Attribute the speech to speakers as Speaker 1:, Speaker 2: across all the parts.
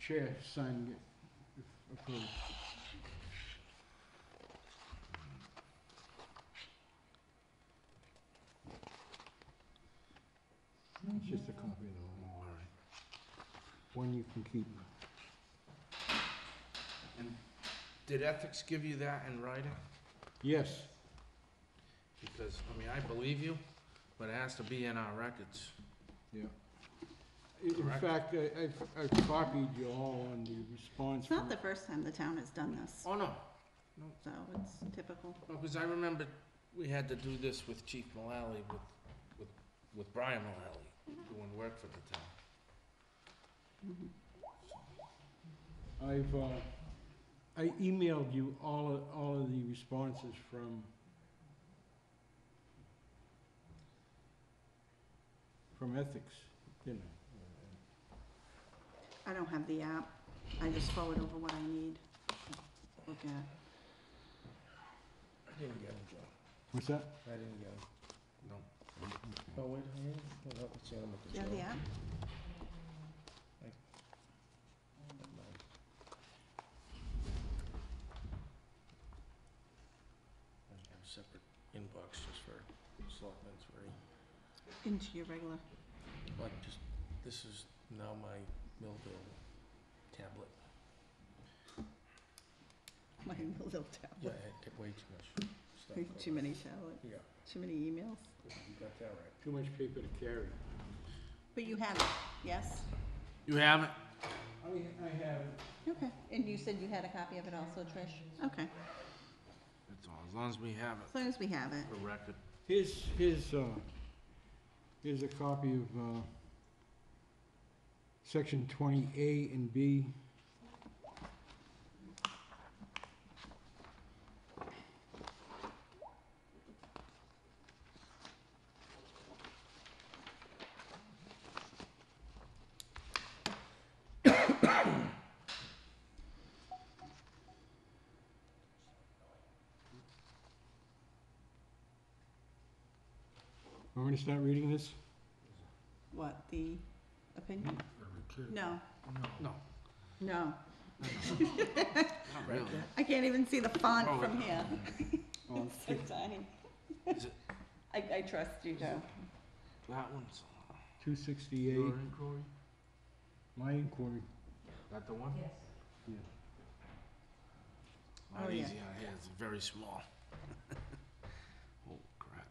Speaker 1: chair sign it if approved. It's just a copy of the whole warrant. One you can keep.
Speaker 2: Did ethics give you that in writing?
Speaker 1: Yes,
Speaker 2: Because, I mean, I believe you, but it has to be in our records.
Speaker 1: yeah. I- In
Speaker 2: Correct.
Speaker 1: fact, I, I've, I've copied you all on the response.
Speaker 3: It's not
Speaker 1: from-
Speaker 3: the first time the town has done this,
Speaker 2: Oh, no,
Speaker 3: so it's typical.
Speaker 2: because I remember we had to do this with Chief Mullally, with, with, with Brian Mullally, doing work for the town.
Speaker 3: Mhm.
Speaker 1: I've, uh, I emailed you all, of- all of the responses from from ethics, didn't I?
Speaker 3: I don't have the app. I just forward over what I need. Look at,
Speaker 4: I didn't get him, Joe.
Speaker 1: What's that?
Speaker 4: I didn't get him.
Speaker 2: No,
Speaker 4: Oh, wait, I am, hold on, let's see, I'm
Speaker 3: do you have the app?
Speaker 4: Separate inbox just for selectmen's, where he,
Speaker 3: Into your regular,
Speaker 4: like, just, this is now my Millville tablet.
Speaker 3: my little tablet.
Speaker 4: Yeah, I did way too much stuff. over
Speaker 3: Too
Speaker 4: there.
Speaker 3: many tablet,
Speaker 4: Yeah,
Speaker 3: too many emails.
Speaker 4: you got that right.
Speaker 1: Too much paper to carry.
Speaker 3: But you have it, yes?
Speaker 2: You haven't?
Speaker 1: I, I have.
Speaker 3: Okay. And you said you had a copy of it also, Trish? Okay,
Speaker 2: That's all, as long as we have
Speaker 3: as long as we have it.
Speaker 2: it for record.
Speaker 1: Here's, here's, uh, here's a copy of, uh, section twenty A and B. Want me to start reading this?
Speaker 3: What, the opinion? No,
Speaker 2: No,
Speaker 3: no.
Speaker 2: not really.
Speaker 3: I can't even see the
Speaker 2: Oh,
Speaker 3: font from
Speaker 2: wait.
Speaker 3: here.
Speaker 1: Oh,
Speaker 3: It's so tiny.
Speaker 2: Is it
Speaker 3: I, I trust you, Joe.
Speaker 2: that one's?
Speaker 1: Two
Speaker 2: Your
Speaker 1: sixty-eight,
Speaker 2: inquiry?
Speaker 1: my inquiry.
Speaker 2: That the one? Yes.
Speaker 1: Yeah.
Speaker 3: Oh,
Speaker 2: Not
Speaker 3: yeah.
Speaker 2: easy on here, it's very small. Oh, crap.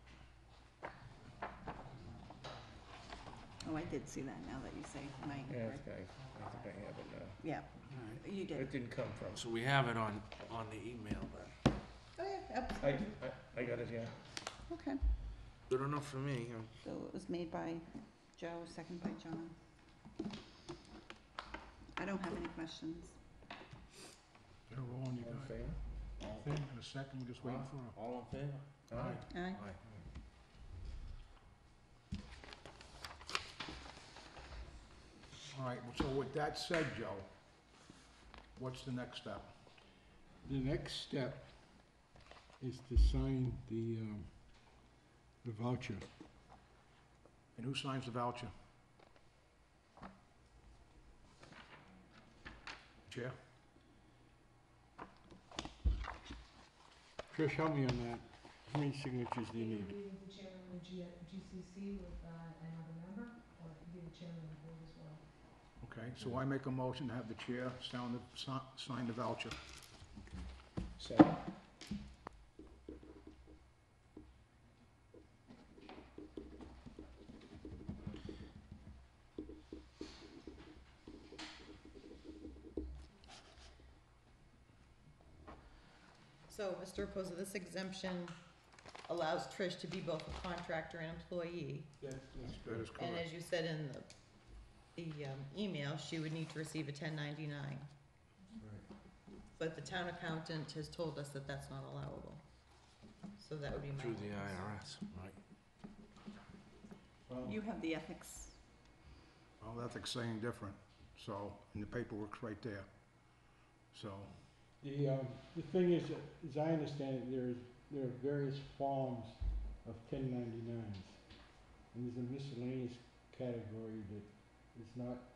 Speaker 3: Oh, I did see that now that you say
Speaker 4: Yeah,
Speaker 3: my
Speaker 4: I
Speaker 3: inquiry.
Speaker 4: think I, I think I have it now.
Speaker 3: Yeah, you did.
Speaker 4: It didn't come from,
Speaker 2: So we have it on, on the email then.
Speaker 3: Oh, yeah, ab-
Speaker 4: I, I, I got it, yeah.
Speaker 3: okay.
Speaker 2: Good enough for me. I'm
Speaker 3: So it was made by Joe, second by John. I don't have any questions.
Speaker 1: They're rolling,
Speaker 4: All in favor?
Speaker 1: thing in a second, we're just waiting for them.
Speaker 2: All in favor?
Speaker 4: Aye.
Speaker 3: Aye.
Speaker 5: All right, well, so with that said, Joe, what's the next step?
Speaker 1: The next step is to sign the, um, the voucher.
Speaker 5: And who signs the voucher? Chair?
Speaker 1: Trish, help me on that. How many signatures do you need?
Speaker 5: Okay, so I make a motion to have the chair sound the, si- sign the voucher.
Speaker 4: Second.
Speaker 6: So, Mr. Reposa, this exemption allows Trish to be both a contractor and employee.
Speaker 1: Yes.
Speaker 5: That is
Speaker 6: And
Speaker 5: correct.
Speaker 6: as you said in the, the um, email, she would need to receive a ten ninety-nine. But the town accountant has told us that that's not allowable. So that would be my.
Speaker 2: Through the IRS, right?
Speaker 3: You have the ethics.
Speaker 5: Well, that's saying different, so, and the paperwork's right there. So,
Speaker 1: The, um, the thing is, that, as I understand it, there is, there are various forms of ten ninety-nines. And there's a miscellaneous category that is not